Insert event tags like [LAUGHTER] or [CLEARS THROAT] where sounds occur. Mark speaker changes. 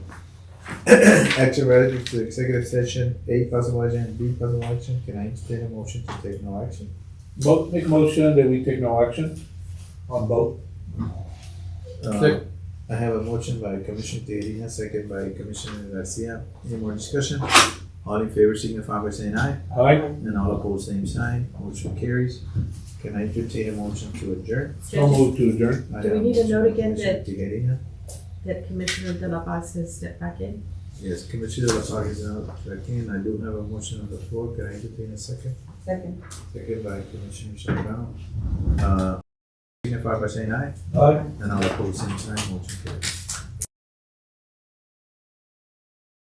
Speaker 1: [CLEARS THROAT] Action relative to executive session, A possible action, and B possible action, can I entertain a motion to take no action?
Speaker 2: Mo- make motion that we take no action on both.
Speaker 1: Uh,
Speaker 2: Sec-
Speaker 1: I have a motion by Commissioner Tejeda, second by Commissioner Garcia, any more discussion? All in favor signify by saying aye,
Speaker 2: Aye.
Speaker 1: and all opposed, same sign, motion carries. Can I entertain a motion to adjourn?
Speaker 2: So move to adjourn.
Speaker 1: I
Speaker 3: Do we
Speaker 1: have a
Speaker 3: need to
Speaker 1: motion
Speaker 3: note
Speaker 1: by
Speaker 3: again
Speaker 1: Commissioner Tejeda.
Speaker 3: that Commissioner De La Paz has stepped back in.
Speaker 1: Yes, Commissioner Lasage is now back in, I do have a motion on the floor, can I entertain a second?
Speaker 3: Second.
Speaker 1: Second by Commissioner Shabana. Uh, signify by saying aye,
Speaker 2: Aye.
Speaker 1: and all opposed, same sign, motion carries.